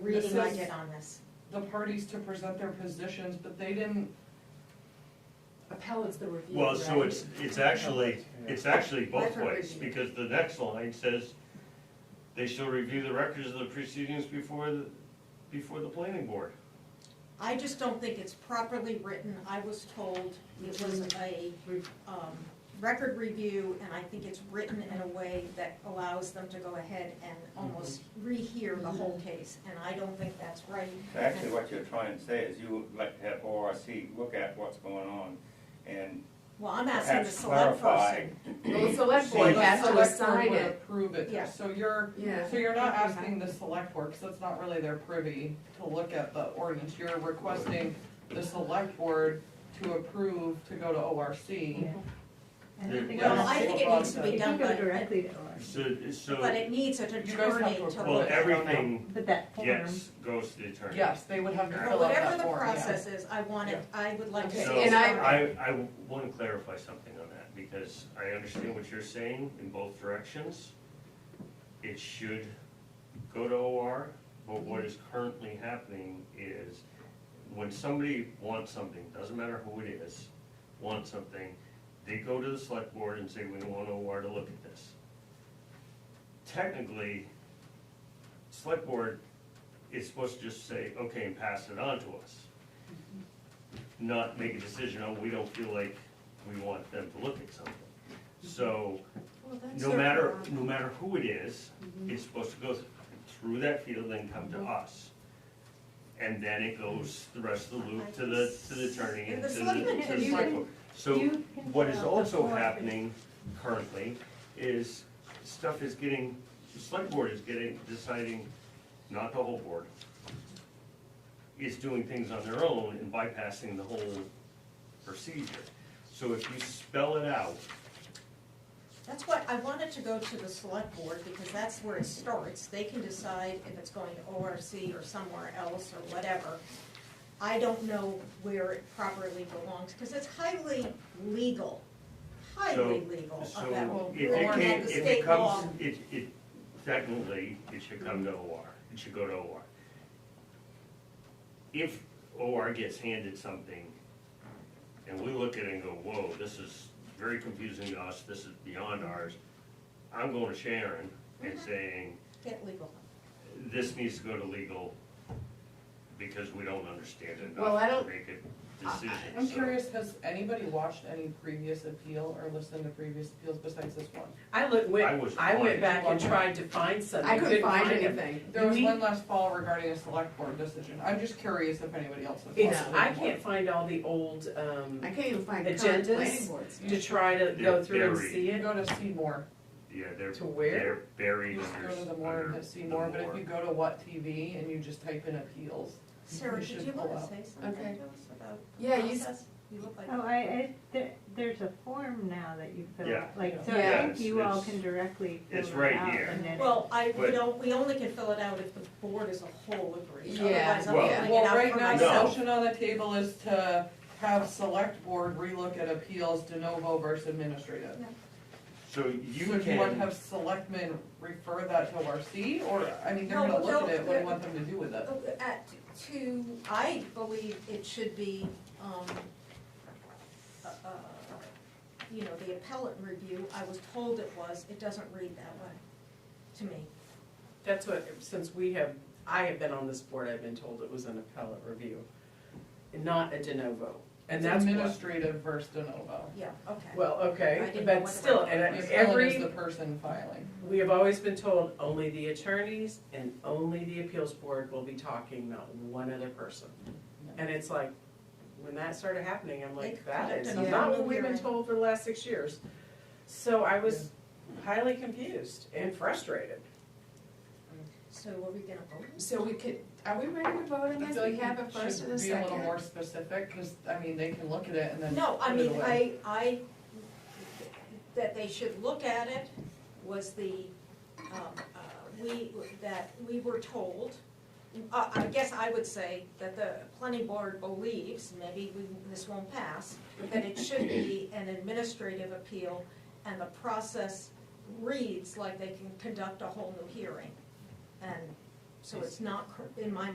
reading I says- did on this. the parties to present their positions, but they didn't, Appellate's the review, Well, so right? it's, it's actually, it's actually both Record ways, review. because the next line says, they shall review the records of the proceedings before, the before the planning board. I just don't think it's properly written. I was told it was a, re- um, record review, and I think it's written in a way that allows them to go ahead and almost rehear the whole case, and I don't think that's right. Actually, what you're trying to say is you would like to have ORC look at what's going on and Well, I'm asking the perhaps select clarify. person. Well, the select well, board the has to select board assign would it. approve Yeah. it, so you're, Yeah. so you're not asking the select board, because that's not really their privy to look at the ordinance, you're requesting the select board to approve to go to ORC. And I think, Yeah. Well, I I think it needs to be you can done, go but, directly to ORC, So, but so, it needs an You guys have attorney to to look at. approve well, it. everything, but that form, yes, goes to the attorney. Yes, they would have to But fill out whatever that the form, yeah. process is, I want it, I would like to see. So, it and I- I, I wanna clarify something on that, because I understand what you're saying in both directions. It should go to OR, but Mm-hmm. what is currently happening is, when somebody wants something, doesn't matter who it is, wants something, they go to the select board and say, we want OR to look at this. Technically, select board is supposed to just say, okay, and pass it on to us not make a decision, oh, we don't feel like we want them to look at something. So, Well, that's no their matter, prerogative. no matter who it is, Mm-hmm. it's supposed to go through that field and come to us. And then it goes the rest of the loop to the, to the attorney and to the, to the select board. So you can what is fill out the also form. happening currently is stuff is getting, the select board is getting, deciding, not the whole board, is doing things on their own and bypassing the whole procedure. So if you spell it out, That's why I wanted to go to the select board, because that's where it starts. They can decide if it's going to ORC or somewhere else or whatever. I don't know where it properly belongs, because it's highly legal, highly So- legal of that. so if Or it at came, the if state it law. comes, it, it, technically, it should come to OR, it should go to OR. If OR gets handed something, and we look at it and go, whoa, this is very confusing to us, this is beyond ours, I'm going to Sharon and Mm-hmm. saying, Get legal. this needs to go to legal, because we don't understand it Well, I enough don't- to make a decision, I'm so- curious, has anybody watched any previous appeal or listened to previous appeals besides this one? I looked, I went, was I blind. went back and tried to find something. I couldn't find anything. There was We- one last fall regarding a select board decision. I'm just curious if anybody else has. It's, watched I it. can't find all the old, um, I can't even find current Agendas? planning boards. to try to go They're through and buried. see You it. go to Seymour, Yeah, they're, To where? they're you buried just under, go to the under more, the hit Seymour, but if more. you go to What TV and you just type in appeals, Sarah, You did should you pull want to out. say something Okay. to us about the Yeah, you s- process? You look like. oh, I, I, there, there's a form now that you fill Yeah. out, like, so Yeah, I think it's- you all it's- can directly fill it's it right out here. and then. Well, I, we But- don't, we only can fill it out if the board as a whole agrees, Yeah. otherwise I'm Well- filling it Well, out right for now, the myself. motion on the table is to have select board relook at appeals de novo versus administrative. So So you do you want to can, have selectmen refer that to ORC, or, I mean, they're No, gonna look no, at it, what do they're- you want them to do with it? uh, At, to, I believe it should be, um, uh, you know, the appellate review, I was told it was, it doesn't read that way to me. That's what, since we have, I have been on this board, I've been told it was an appellate review, not a de novo. And It's that's what, Administrative versus de novo. Yeah, okay. well, I okay, didn't know but what it still, was. and Ms. every. Ellen is the person filing. We have always been told only the attorneys and only the appeals board will be talking, not one other person. And it's like, when that started happening, I'm like, that is Yeah. not what we've been told for the last six years. So I was highly confused and frustrated. So are we gonna vote? So we could, are we ready to vote on I this? feel We like have a you first should and a Be a little second. more specific, because, I mean, they can look at it and then. No, I put it mean, away. I, I, that they should look at it was the, um, uh, we, that we were told. Uh, I guess I would say that the planning board believes, maybe we, this won't pass, that it should be an administrative appeal and the process reads like they can conduct a whole new hearing. And So it's not, cor- in my